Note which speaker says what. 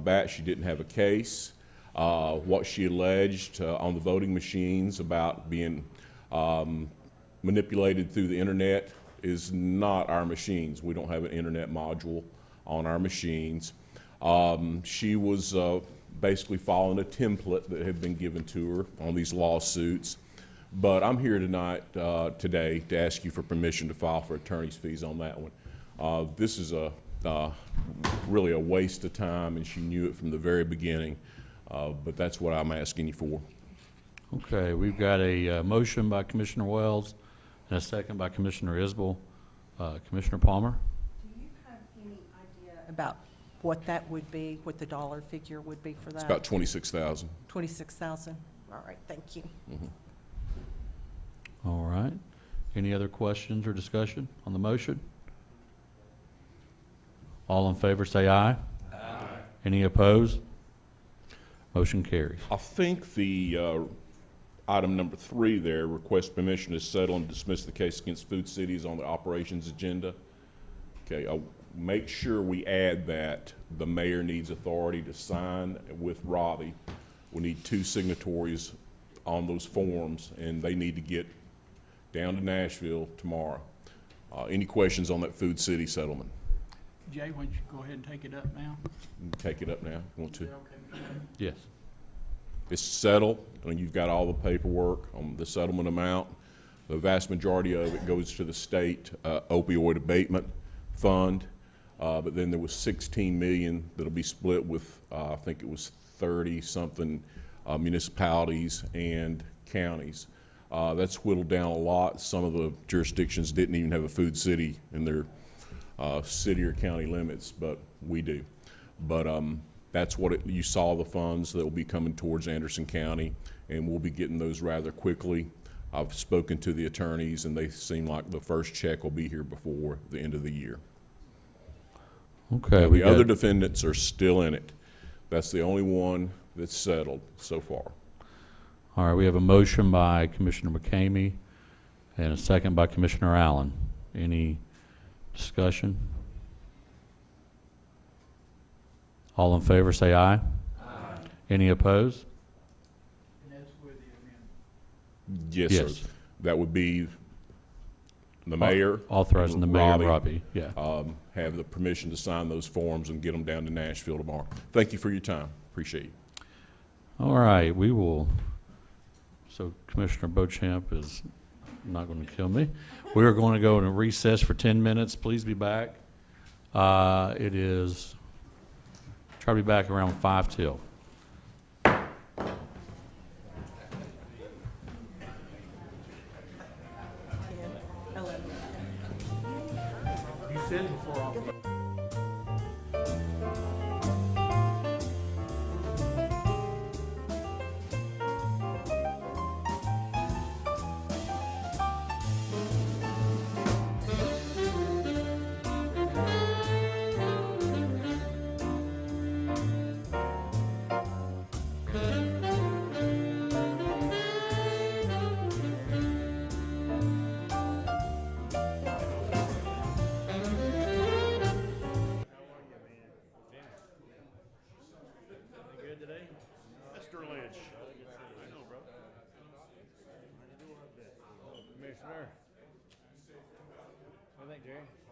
Speaker 1: bat, she didn't have a case. Uh, What she alleged uh, on the voting machines about being um, manipulated through the internet is not our machines. We don't have an internet module on our machines. Um, She was uh, basically following a template that had been given to her on these lawsuits. But I'm here tonight, uh, today, to ask you for permission to file for attorney's fees on that one. Uh, This is a, uh, really a waste of time, and she knew it from the very beginning, Uh, but that's what I'm asking you for.
Speaker 2: Okay, we've got a uh, motion by Commissioner Wells and a second by Commissioner Isbell. Uh, Commissioner Palmer?
Speaker 3: Do you have any idea about what that would be, what the dollar figure would be for that?
Speaker 1: It's about 26,000.
Speaker 3: Twenty-six thousand? All right, thank you.
Speaker 2: All right. Any other questions or discussion on the motion? All in favor, say aye. Aye. Any opposed? Motion carries.
Speaker 1: I think the uh, item number three there, request permission to settle and dismiss the case against Food Cities on the operations agenda. Okay, I'll make sure we add that the mayor needs authority to sign with Robbie. We need two signatories on those forms, and they need to get down to Nashville tomorrow. Uh, Any questions on that Food City settlement?
Speaker 4: Jay, why don't you go ahead and take it up now?
Speaker 1: Take it up now, if you want to.
Speaker 2: Yes.
Speaker 1: It's settled, and you've got all the paperwork on the settlement amount. The vast majority of it goes to the state uh, opioid abatement fund, Uh, but then there was 16 million that'll be split with, uh, I think it was 30-something municipalities and counties. Uh, That's whittled down a lot. Some of the jurisdictions didn't even have a food city in their uh, city or county limits, but we do. But um, that's what, it- you saw the funds that will be coming towards Anderson County, and we'll be getting those rather quickly. I've spoken to the attorneys, and they seem like the first check will be here before the end of the year.
Speaker 2: Okay,
Speaker 1: Now,
Speaker 2: we
Speaker 1: The other
Speaker 2: got,
Speaker 1: defendants are still in it. That's the only one that's settled so far.
Speaker 2: all right, we have a motion by Commissioner McCamey and a second by Commissioner Allen. Any discussion? All in favor, say aye. Any opposed?
Speaker 4: And that's where the amendment.
Speaker 1: Yes, sir. That would be the mayor,
Speaker 2: Authorizing the mayor,
Speaker 1: Robbie.
Speaker 2: Robbie, yeah.
Speaker 1: um, have the permission to sign those forms and get them down to Nashville tomorrow. Thank you for your time. Appreciate you.
Speaker 2: All right, we will, so Commissioner Bochamp is not going to kill me. We are going to go into recess for 10 minutes. Please be back. Uh, It is, try to be back around 5 till.
Speaker 3: Ten, eleven.
Speaker 4: You said before I'll be
Speaker 5: Mr. Lynch. I know, bro. Commissioner. What do you think, Jerry?